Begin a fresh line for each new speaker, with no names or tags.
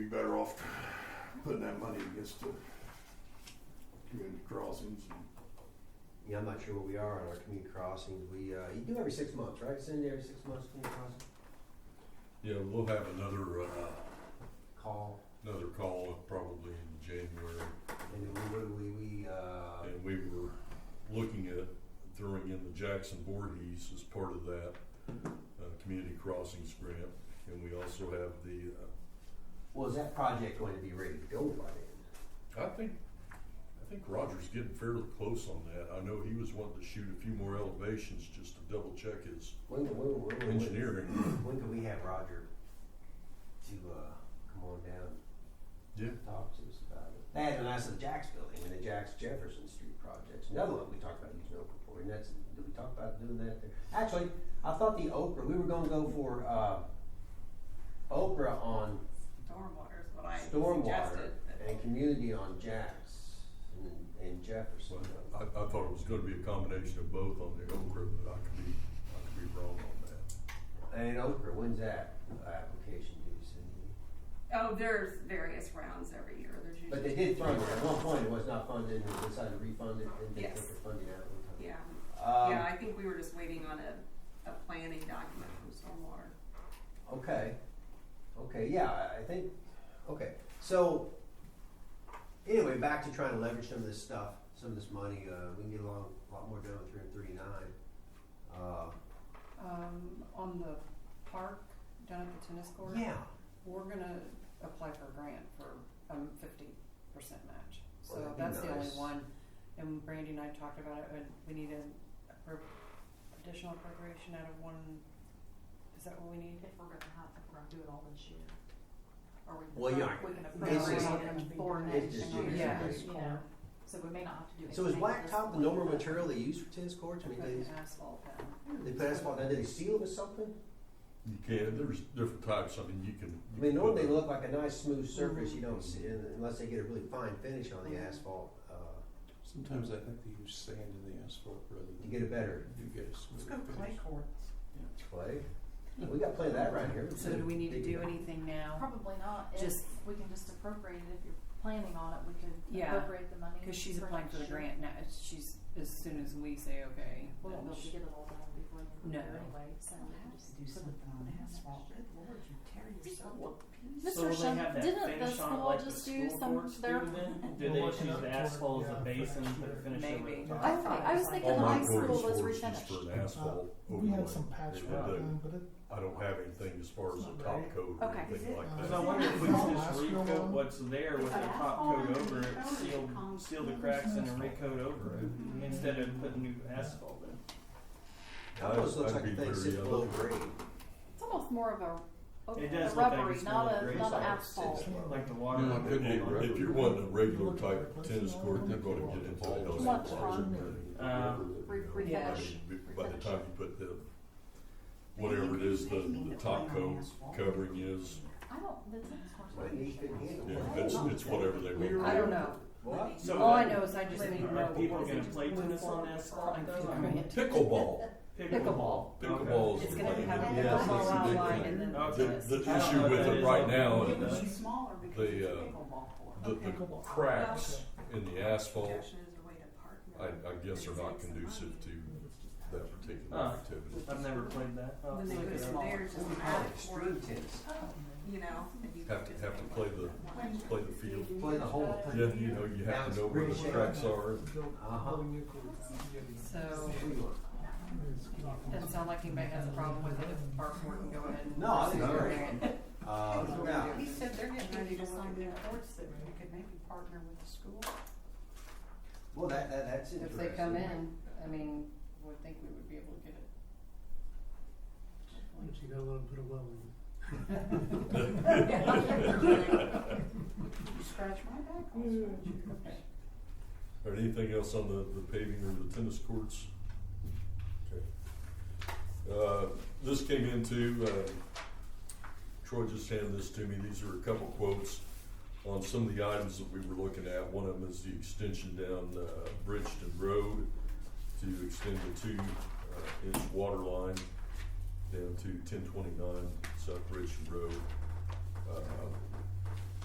be better off putting that money against the community crossings and
Yeah, I'm not sure where we are on our community crossings. We, uh, you do every six months, right? Send every six months community crossing
Yeah, we'll have another, uh,
call.
another call probably in January,
And then we, we, we, uh,
and we were looking at throwing in the Jackson Voorhees as part of that, uh, community crossings grant, and we also have the, uh,
well, is that project going to be ready to go by then?
I think, I think Roger's getting fairly close on that, I know he was wanting to shoot a few more elevations just to double check his
When, when, when, when,
engineering.
when can we have Roger to, uh, come on down?
Yeah.
and Talk to us about it. That and that's the Jack's building and the Jack's Jefferson Street projects. Another one we talked about using Oprah for, and that's, did we talk about doing that there? Actually, I thought the Oprah, we were gonna go for, uh, Oprah on
Stormwater is what I
stormwater
suggested. but-
and community on Jack's and, and Jefferson.
I, I thought it was gonna be a combination of both on the Okra, but I could be, I could be wrong on that.
And Oprah, when's that application due, Cindy?
Oh, there's various rounds every year. There's usually.
But they did fund it, at one point it was not funded, and they decided to refund it, and they took
Yes.
the funding out one time.
Yeah,
Um,
yeah, I think we were just waiting on a, a planning document from stormwater.
Okay, okay, yeah, I- I think, okay, so, anyway, back to trying to leverage some of this stuff, some of this money, uh, we can get a lot, a lot more done with three and thirty-nine. Uh,
um, on the park down at the tennis court.
yeah,
We're gonna apply for a grant for, um, fifty percent match. So
Well, that'd be
that's the only
nice.
one. And Brandy and I talked about it, and we need an appro- additional appropriation out of one, is that what we need?
if we're gonna have, if we're gonna do it all this year. Or we can,
Well, yeah,
we can
this
appropriate
is-
it for
it's
next year,
just
you
years
Yeah.
away.
know, so we may not have to do anything.
So is
at
Black
this
Top the
point,
normal
but-
material they use for tennis courts? I mean,
Put
they,
an asphalt down.
they put asphalt down, do they seal it with something?
You can, there's different types, I mean, you can.
I
you
mean,
can
normally
put
they
the-
look like a nice smooth surface, you don't
Mhm.
see, unless they get a really fine finish on the
Mhm.
asphalt, uh,
Sometimes I think they use sand in the asphalt rather
to
than
get a better
you get a smooth.
Let's go clay
finish.
courts.
play. We got plenty of that right here.
So do we need to
Big-
do anything now?
Probably not, if,
Just-
we can just appropriate it, if you're planning on it, we could
Yeah,
appropriate the money
Cause she's applying for the
next year.
grant now, It's- she's, as soon as we say okay.
We won't
then
be able to
she-
get it all done before the end of the year
No.
anyway, so.
do something on asphalt. Good lord, you tear yourself
So will they have that finish on it like the school courts do then? Do they
Well,
just use
not
the asphalt as
toward-
a
yeah,
base and
for
put a finish over
Maybe.
it?
I
I thought, I was thinking
All
the
my
high
quarries
school was
for is
refinished.
for an asphalt
We
overlay.
had some
They
patchwork
do.
done, but it,
I don't have anything as far as a top coat or
Okay.
anything like that.
Is
Cause
it-
I wonder if we
Is
could
it
just
last year
recoat
one?
what's there with a top coat over it, seal, seal the cracks and then recoat over it, instead of putting new asphalt in.
That almost looks like a thing sits below grade.
It's almost more of a,
It
a
does look like
rubbery,
it's more
not
gray
a, not an
solid.
asphalt.
Like the water.
Yeah,
would
could
hold
be.
on.
If you're wanting a regular type tennis court, you're gonna get involved in
Much
that.
fun.
Um,
Re-
I mean,
refresh.
By the time you put the, whatever it is, the, the top coat covering is,
I don't, the tennis courts.
Well, you couldn't handle
yeah,
it.
it's, it's whatever they want.
I don't know.
What?
So
All I
that-
know is I just need to know.
Are people
what is it
gonna
to
play
move
tennis on
forward with
asphalt,
applying for
though?
the
I mean,
grant.
Pickleball,
Pickleball.
pickleball is.
It's
the
gonna
thing.
have a
Yeah.
pickleball
That's the
outline
big
and then
thing.
Okay.
tennis.
The, the
I don't
issue
know
with
if that
it
is
right
on
now,
purpose.
is
smaller
the, uh, the, the cracks in the asphalt
Objection is a way to park.
I, I guess are not conducive to that particular
Ah.
activity.
I've never played that. Oh, I'll
Then they
look
go
it up.
there's
What
just
do you
an
call it?
attic for
Extreme tennis.
you know. and you
Have to, have to play the, play the field.
Play the whole
Uh,
thing.
Yeah, you know, you have to know where the cracks are.
Uh-huh.
So,
What do you want?
doesn't sound like anybody has a problem with it if park board can go ahead and.
No, I think
pursue
it's
a
great.
grant.
Uh, yeah.
He said they're getting ready to sign
their
their courts that we could maybe partner with the school.
Well, that, that, that's
If
interesting.
they come in, I mean, would think we would be able to get it.
you gotta let them put a well in. You scratch my back, I'll
Mm-hmm.
scratch yours.
Or anything else on the, the paving or the tennis courts? Okay. Uh, this came into, uh, Troy just handed this to me, these are a couple quotes on some of the items that we were looking at. One of them is the extension down, uh, Bridgeton Road to extend the two, uh, inch water line down to ten twenty-nine South Bridgeton Road. Uh,